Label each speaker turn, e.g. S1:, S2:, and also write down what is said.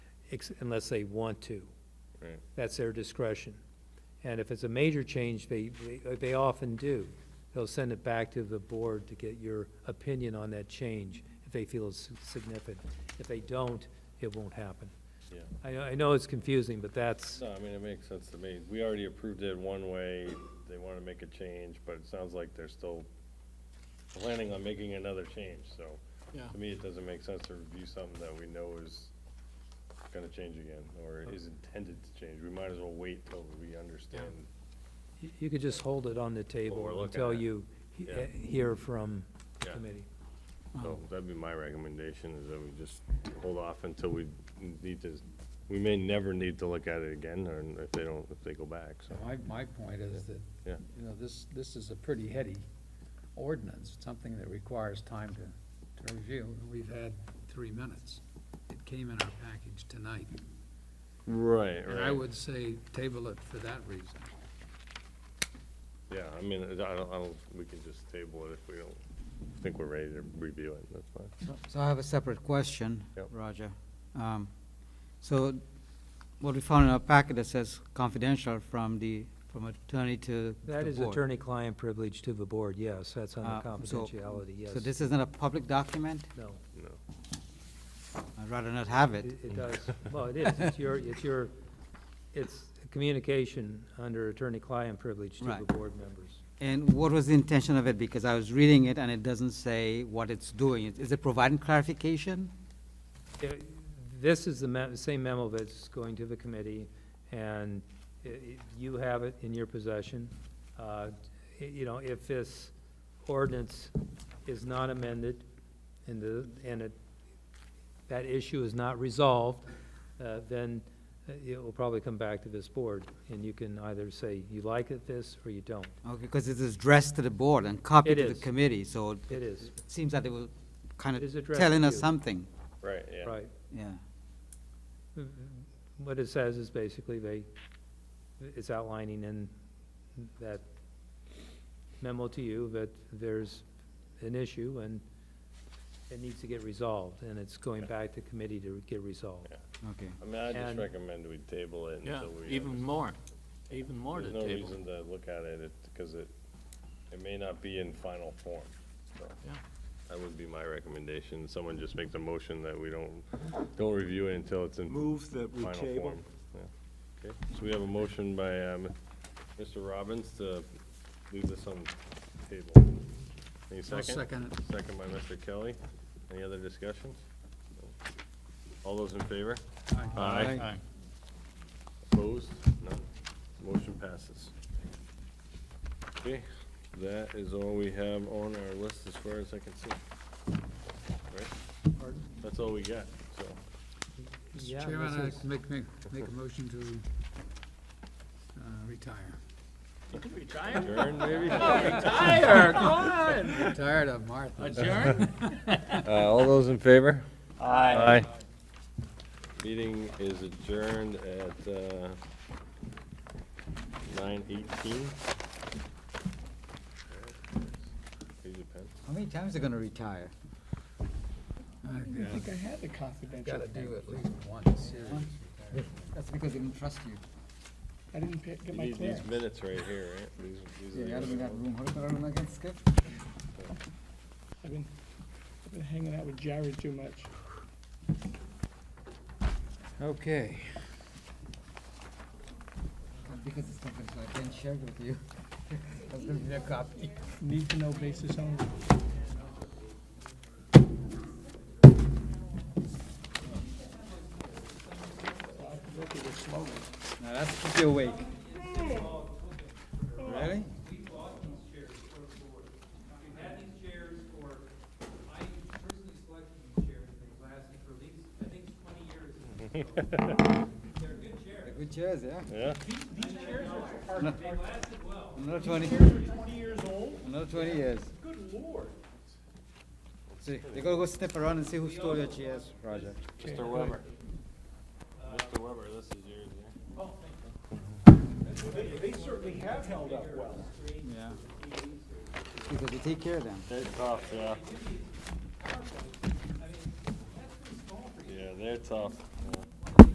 S1: ex- unless they want to.
S2: Right.
S1: That's their discretion. And if it's a major change, they, they- uh, they often do. They'll send it back to the board to get your opinion on that change, if they feel it's significant. If they don't, it won't happen.
S2: Yeah.
S1: I know, I know it's confusing, but that's,
S2: No, I mean, it makes sense to me. We already approved it one way, they want to make a change, but it sounds like they're still planning on making another change, so.
S3: Yeah.
S2: To me, it doesn't make sense to review something that we know is going to change again, or is intended to change. We might as well wait till we understand.
S1: you- you could just hold it on the
S2: Well, we're
S1: table
S2: looking
S1: until
S2: at it.
S1: you he- uh,
S2: Yeah.
S1: hear from the
S2: Yeah.
S1: committee.
S2: So
S3: Uh-huh.
S2: that'd be my recommendation, is that we just hold off until we need to, we may never need to look at it again, or if they don't, if they go back, so.
S3: My, my point is that,
S2: Yeah.
S3: you know, this, this is a pretty heady ordinance, It's something that requires time to, to review, and we've had three minutes. It came in our package tonight,
S2: Right,
S3: and I would say table it for that reason.
S2: Yeah, I mean, I don't, I don't, we can just table it if we don't think we're ready to review it, that's fine.
S4: So- So I have a separate question,
S2: Yep.
S4: Roger. Um, So what we found in our packet that says confidential from the, from attorney to the board.
S1: That is attorney-client privilege to the board, yes, that's under
S4: Uh, so-
S1: confidentiality, yes.
S4: So this isn't a public document?
S1: No,
S2: No,
S4: I'd rather not have
S1: it
S4: it.
S1: it does, well, it is, it's your, it's your, it's communication under attorney-client privilege to the
S4: Right.
S1: board members.
S4: And what was the intention of it? Because I was reading it and it doesn't say what it's doing. Is- Is it providing clarification?
S1: Yeah, This is the me- same memo that's going to the committee, and i- i- you have it in your possession. Uh, y- You know, if this ordinance is not amended and the, and it, that issue is not resolved, uh, then uh, it will probably come back to this board, and you can either say you like it this or you don't.
S4: Okay, because it is addressed to the board and copied
S1: It
S4: to the
S1: is.
S4: committee, so
S1: It is,
S4: it seems that it was kind
S1: It is
S4: of
S1: addressed
S4: telling
S1: to
S4: us
S1: you.
S4: something,
S2: right, yeah.
S1: right.
S4: yeah.
S1: What it says is basically they, it's outlining in that memo to you that there's an issue and it needs to get resolved, and it's going back to committee to get resolved.
S4: Okay.
S2: I mean, I just
S1: And-
S2: recommend we table it
S5: Yeah,
S2: until we.
S5: even more, even more to
S2: There's no
S5: table.
S2: reason to look at it, because it, it may not be in final form, so.
S5: Yeah.
S2: That would be my recommendation, someone just make the motion that we don't, don't review it until it's in.
S6: Move that we
S2: final
S6: table.
S2: form. Yeah. Okay, so we have a motion by, um, Mr. Robbins to leave this on the table. Any
S3: I'll
S2: second?
S3: second it.
S2: Second by Mr. Kelly. Any other discussions? All those in favor? Aye.
S5: Aye.
S2: Opposed? None. Motion passes. Okay, that is all we have on our list as far as I can see. Right?
S1: Pardon?
S2: That's all we got, so.
S1: Yeah,
S3: Mr. Chairman,
S1: this
S3: I
S1: is-
S3: make, make, make a motion to, uh, retire.
S2: Adjourn, maybe? Uh,
S5: Higher, come on.
S3: Tired of Martha.
S5: Adjourn?
S2: Uh, all those in favor? Aye. Meeting is adjourned at, uh, nine eighteen. Here's your pen.
S4: How many times are they gonna retire?
S3: I
S6: I think I had the confidential
S3: gotta do
S6: thing.
S3: at least one serious.
S4: That's because they didn't trust you.
S6: I didn't pick- get
S2: You
S6: my
S2: need
S6: clearance.
S2: these minutes right here, right? These- these are
S4: Yeah,
S2: yours.
S4: we got room, how about room against Skip?
S6: I've been, I've been hanging out with Jared too much.
S3: Okay.
S4: Because it's confidential, I can't share it with you. That's gonna be a copy.
S6: Need to know basis only.
S4: Now, that's keep you awake. Really?
S7: we bought these chairs for the board. We've had these chairs for, I personally selected these chairs, they've lasted for at least, I think, twenty years. They're good chairs,
S4: Good chairs, yeah?
S2: Yeah?
S7: they lasted well.
S4: Another twenty,
S7: Twenty years old?
S4: another twenty years.
S7: Good lord.
S4: See, they gotta go sniff around and see who stole your chairs, Roger.
S2: Mr. Weber. Mr. Weber, this is yours, yeah?
S7: They certainly have held up well.
S4: Yeah. Because you take care of them.
S2: They're tough, yeah. Yeah, they're tough.